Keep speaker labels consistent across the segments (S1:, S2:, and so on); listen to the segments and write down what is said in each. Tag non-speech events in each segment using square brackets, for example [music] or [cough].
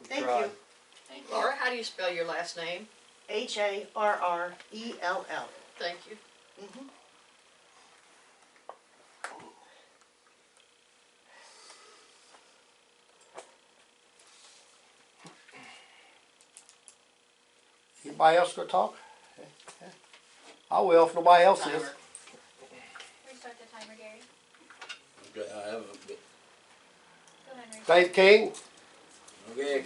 S1: We
S2: Thank
S1: tried.
S2: you.
S3: Thank you. Laura, how do you spell your last name?
S2: H A R R E L L.
S3: Thank you.
S1: Anybody else gonna talk? I will if nobody else is.
S3: Timer.
S4: Restart the timer, Gary.
S5: Okay, I have a bit.
S4: Go ahead and restart.
S1: Dave King,
S5: Okay,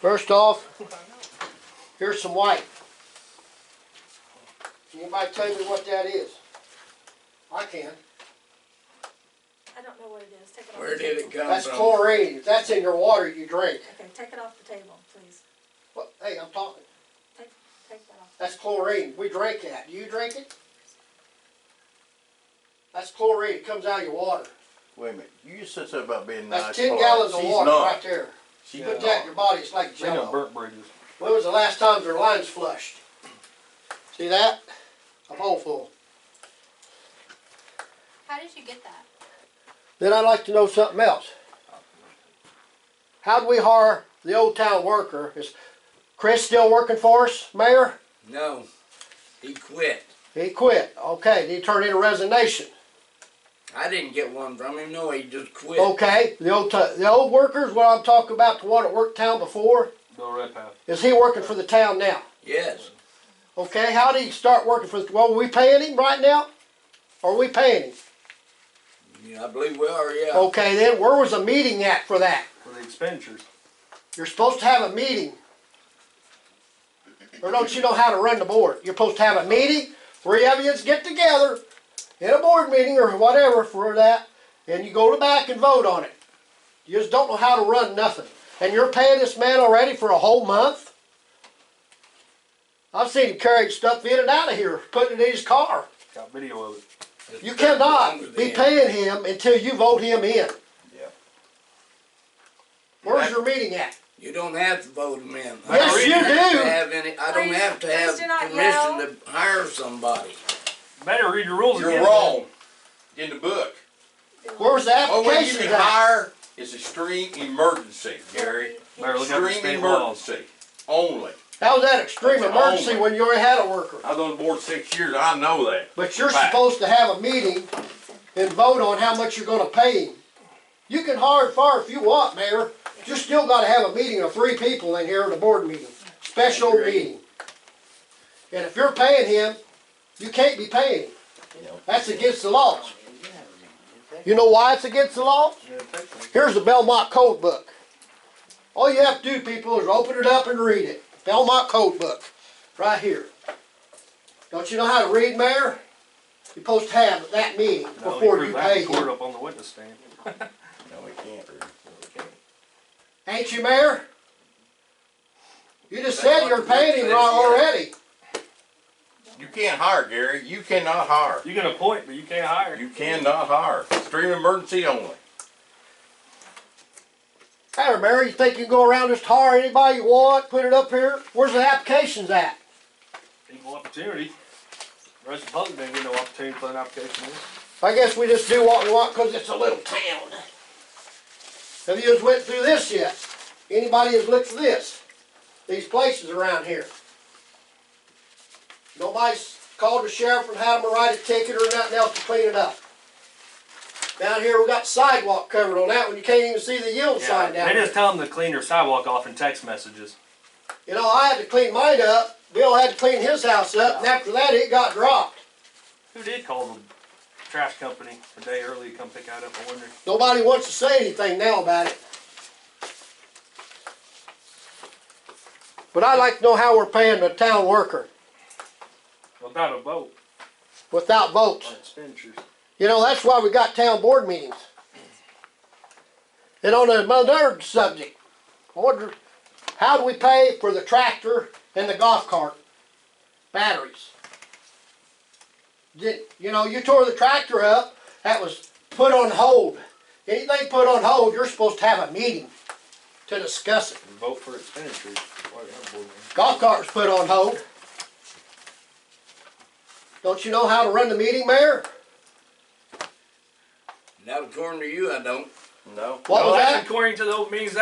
S1: first off, here's some white. Can Anybody tell me what that is? I can.
S6: I don't know what it is, take it off.
S5: where
S6: the
S5: did it
S6: table.
S5: come from?
S1: That's chlorine. If that's in your water, you drink.
S6: Okay, take it off the table, please,
S1: What- Hey, I'm talking.
S6: take that off.
S1: That's chlorine. We drink that. Do you drink it? That's chlorine. It comes out of your water.
S7: Wait a minute, you just said something about being nice.
S1: That's ten
S7: boy.
S1: gallons of
S7: She's
S1: water
S7: not.
S1: right there.
S7: She's
S1: Put that in your
S7: not.
S1: body, it's like
S8: They got
S1: jello.
S8: burnt bridges.
S1: When was the last time their lines flushed? See that? A bowl full.
S4: How did you get that?
S1: Then I'd like to know something else. How'd we hire the old town worker? Is Chris still working for us, mayor?
S5: No, he quit.
S1: He quit. Okay, did he turn in a resignation?
S5: I didn't get one from him, no, he just quit.
S1: Okay, the old, ti- the old workers, what I'm talking about, the one that worked town before,
S8: Bill Redpath.
S1: is he working for the town now?
S5: Yes,
S1: Okay, how did he start working for, the well, are we paying him right now? Are we paying him?
S5: Yeah, I believe we are, yeah.
S1: Okay, then where was a meeting at for that?
S8: For the expenditures.
S1: You're supposed to have a meeting. Or don't you know how to run the board? You're supposed to have a meeting, three of you get together in a board meeting or whatever for that, and you go to back and vote on it. You just don't know how to run nothing. And you're paying this man already for a whole month? I've seen him carrying stuff in and out of here, putting it in his car.
S8: Got video of it.
S5: It's
S1: You
S5: been longer
S1: cannot be
S5: than-
S1: paying him until you vote him in.
S7: Yeah.
S1: Where's your meeting at?
S5: You don't have to vote him in. I
S1: Yes,
S5: don't
S1: you
S5: have to
S1: do.
S5: have any, I don't
S6: Please-
S5: have to
S6: please
S5: have
S6: do not
S5: permission to hire somebody.
S8: Better read your rules again.
S7: You're wrong. In the book,
S1: Where's the
S7: oh, when you
S1: application
S7: can
S1: at?
S7: hire is extreme emergency, Gary.
S8: Better look up your
S7: Extreme
S8: state laws.
S7: emergency only.
S1: How's that extreme
S7: That's
S1: emergency
S7: only.
S1: when you already had a worker?
S7: I was on the board six years, I know that.
S1: But you're
S7: Right.
S1: supposed to have a meeting and vote on how much you're gonna pay him. You can hire and fire if you want, Mayor. You still gotta have a meeting of three people in here at a board meeting, special
S5: Agreed.
S1: meeting. And if you're paying him, you can't be paying him. That's against the laws. You know why it's against the law? Here's the Belmont Code Book. All you have to do, people, is open it up and read it. Belmont Code Book, right here. Don't you know how to read, Mayor? You're supposed to have that meeting
S8: No,
S1: before
S8: proved
S1: you
S8: that in
S1: pay
S8: Court
S1: him.
S8: up on the witness stand. [laughs]
S7: No, we can't.
S1: Ain't you, Mayor? You just said
S5: what
S1: you're
S5: the book
S1: paying him
S5: says,
S1: right
S5: yeah.
S1: already.
S7: You can't hire, Gary, you cannot hire.
S8: You can appoint, but you can't hire.
S7: You cannot hire, extreme emergency only.
S1: Hey, Mayor, you think you can go around just hire anybody you want, put it up here? Where's the applications at?
S8: Equal opportunity. The rest of the public didn't get no opportunity to put an application in.
S1: I guess we just do what we want because it's a little town. Have you just went through this yet? Anybody has looked at this? These places around here? Nobody's called the sheriff and had them write a ticket or nothing else to clean it up. Down here, we got sidewalk covered on that one. You can't even see the yield sign down
S8: They
S1: there.
S8: just tell them to clean their sidewalk off in text messages.
S1: You know, I had to clean mine up. Bill had to clean his house up, and after that, it got dropped.
S8: Who did call the trash company a day early to come pick that up? I wonder.
S1: Nobody wants to say anything now about it. But I'd like to know how we're paying the town worker
S8: Without a vote
S1: without votes.
S8: on expenditures.
S1: You know, that's why we got town board meetings. And on another subject, I wonder, how do we pay for the tractor and the golf cart batteries? Did, you know, you tore the tractor up, that was put on hold. Anything put on hold, you're supposed to have a meeting to discuss it.
S8: Vote for expenditures. Why don't we have
S1: Golf cart was put on hold. Don't you know how to run the meeting, Mayor?
S5: Not according to you, I don't.
S7: No.
S1: What
S8: a board meeting? No,
S1: was
S8: that's
S1: that?
S8: According to the old meetings